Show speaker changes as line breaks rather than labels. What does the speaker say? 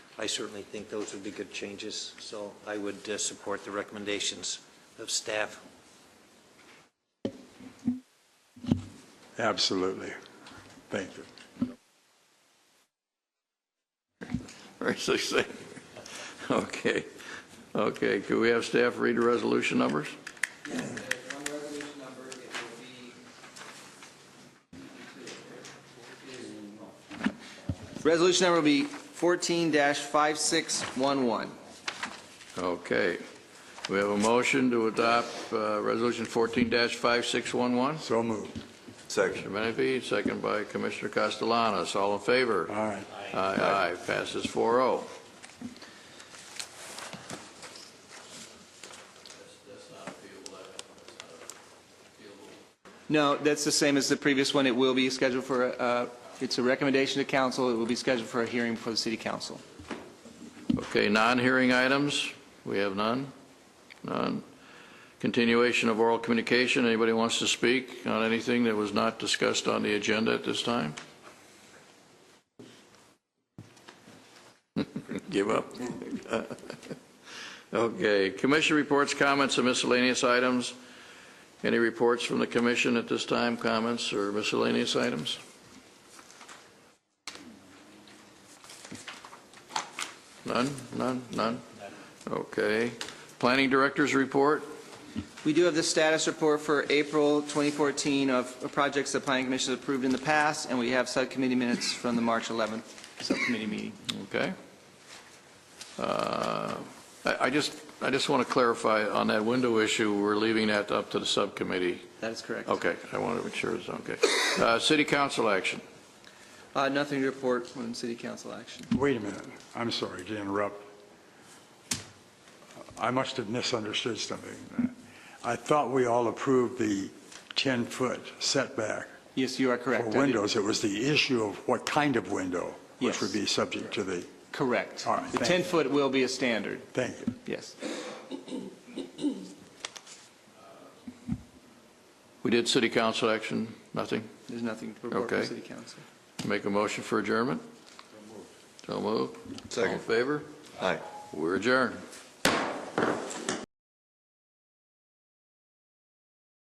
I certainly think those would be good changes, so I would uh, support the recommendations of staff.
Absolutely. Thank you.
Very succinct. Okay, okay, could we have staff read the resolution numbers?
Yes, there's one resolution number, it will be. Resolution number will be fourteen five six one one.
Okay, we have a motion to adopt uh, Resolution 14-5611.
So moved.
Commissioner Menefee, second by Commissioner Castellanos, all in favor?
All right.
Aye, aye, passes oh. 4-0.
No, that's the same as the previous one, it will be scheduled for, a- uh, it's a recommendation to council, it will be scheduled for a hearing before the city council.
Okay, non-hearing items, we have none? None. Continuation of oral communication, anybody wants to speak on anything that was not discussed on the agenda at this time? Give up. Okay, commission reports, comments, and miscellaneous items. Any reports from the commission at this time, comments or miscellaneous items? None, none, none? Okay. Planning director's report?
We do have the status report for April 2014 of projects the planning commission has approved in the past, and we have subcommittee minutes from the March 11th subcommittee meeting.
Okay. Uh, I I just, I just want to clarify on that window issue, we're leaving that up to the subcommittee.
That is correct.
Okay, I want to make sure it's okay. Uh, City council action.
Uh, Nothing to report on city council action.
Wait a minute. I'm sorry to interrupt. I must have misunderstood something. I thought we all approved the 10-foot setback
Yes, you are correct.
for
I did-
windows. It was the issue of what kind of window, which
Yes.
would be subject to the,
Correct.
All right,
The
thank you.
10-foot will be a standard,
thank you.
yes.
We did city council action, nothing?
There's nothing to report from
Okay.
city council.
Make a motion for adjournment? So moved. All in favor?
Aye.
We're adjourned.